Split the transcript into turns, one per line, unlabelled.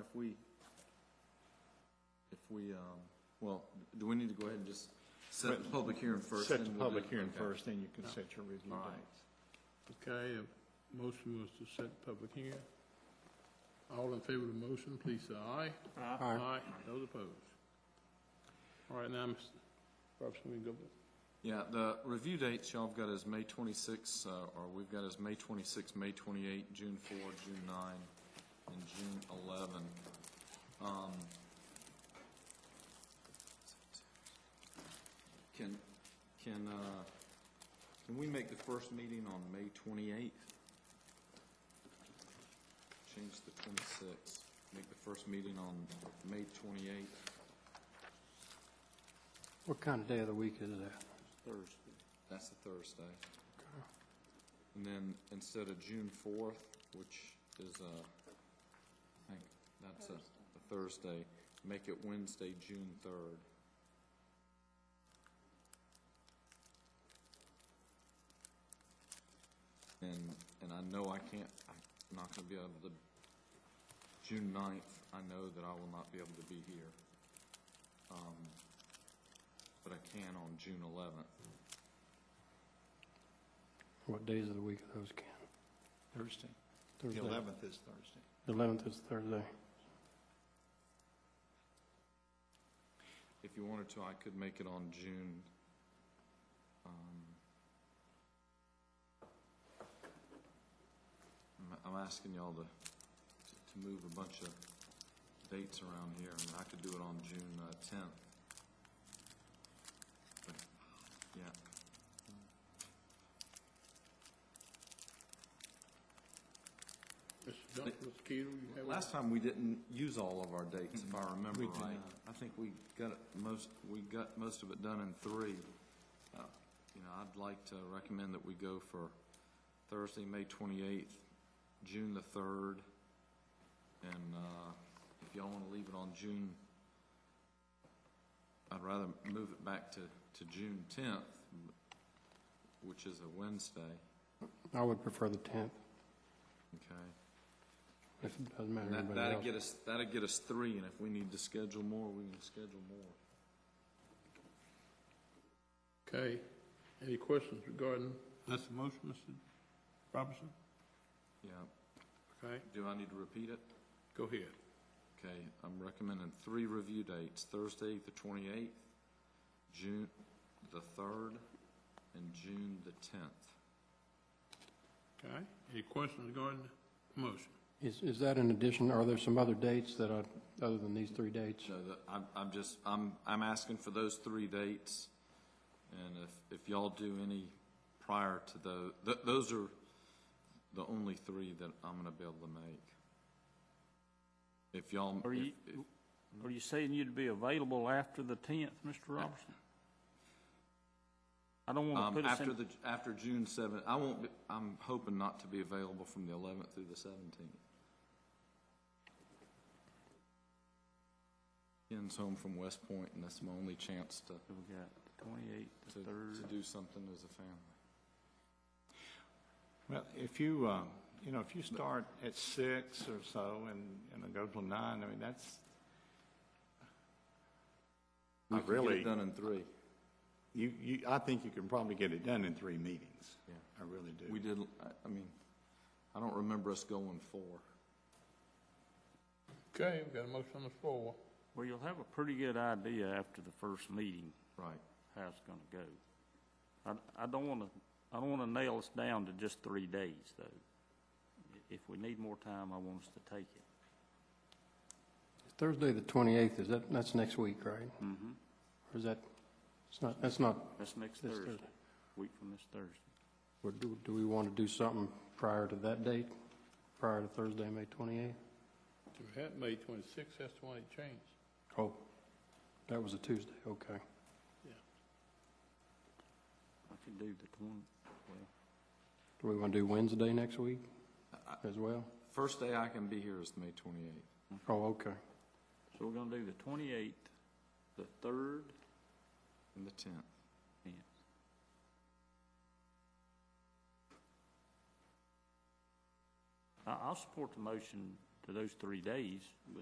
if we, if we, um, well, do we need to go ahead and just set the public hearing first?
Set the
then we'll do-
public hearing
okay.
first, then you can set your review
All
date.
right.
Okay, a motion was to set public hearing. All in favor of the motion, please say aye.
Aye.
Those opposed? All right, now, Mr. Robson, we can go,
Yeah, the review dates y'all have got is May 26, uh, or we've got is May 26, May 28, June 4, June 9, and June 11. Um, Can, can, uh, can we make the first meeting on May 28? Change the 26, make the first meeting on May 28,
What kind of day of the week is that?
Thursday. That's the Thursday. And then instead of June fourth, which is, uh, I think that's a a Thursday, make it Wednesday, June third. And, and I know I can't, I'm not gonna be able to, June ninth, I know that I will not be able to be here. Um, But I can on June eleventh.
What days of the week are those, Ken?
Thursday. The
Thursday.
11th is Thursday.
The 11th is Thursday.
If you wanted to, I could make it on June. um, I'm- I'm asking y'all to, to move a bunch of dates around here, and I could do it on June uh, 10th. But, Yeah,
Mr. Duff, Mr. Keel, you have?
last time we didn't use all of our dates, if I remember right. I think we got it most, we got most of it done in three. Uh, You know, I'd like to recommend that we go for Thursday, May 28th, June the 3rd, and uh, if y'all want to leave it on June, I'd rather move it back to, to June 10th, which is a Wednesday,
I would prefer the 10th,
okay?
if it doesn't matter to
That,
anybody
that'd
else.
get us, that'd get us three, and if we need to schedule more, we can schedule more.
Okay, any questions regarding, that's the motion, Mr. Robinson?
Yeah,
Okay,
do I need to repeat it?
go ahead.
Okay, I'm recommending three review dates, Thursday, the twenty-eighth, June the third, and June the tenth.
Okay, any questions regarding the motion?
Is, is that in addition, are there some other dates that are, other than these three dates?
So that, I'm, I'm just, I'm, I'm asking for those three dates, and if, if y'all do any prior to those, th- those are the only three that I'm gonna be able to make. If y'all.
Are you,
if- if-
are you saying you'd be available after the tenth, Mr. Robertson? I don't want
Um,
to put us
after
in,
the, after June seventh, I won't, be I'm hoping not to be available from the eleventh through the seventeenth. Ken's home from West Point, and that's my only chance to,
we got the twenty-eighth,
to,
the
to
third.
do something as a family.
Well, if you, uh, you know, if you start at six or so and, and it goes till nine, I mean, that's, I
We could get
really-
it done in three.
you, you, I think you can probably get it done in three meetings.
Yeah.
I really do.
We did, I- I mean, I don't remember us going four.
Okay, we've got a motion on the floor.
Well, you'll have a pretty good idea after the first meeting
Right.
how it's gonna go. I, I don't wanna, I don't wanna nail us down to just three days, though. I- If we need more time, I want us to take it.
Thursday, the 28th, is that, that's next week, right? Mm-hmm. Or is that, it's not, that's not,
That's next
This
Thursday,
Thursday.
week from this Thursday.
or do, do we want to do something prior to that date? Prior to Thursday, May 28th?
We had May twenty-sixth, that's the one it changed.
Oh, that was a Tuesday, okay.
I could do the twenty, well.
Do we want to do Wednesday next week as well?
First day I can be here is May twenty-eighth.
Oh, okay.
So we're gonna do the twenty-eighth, the third,
And the tenth.
and I, I'll support the motion to those three days, but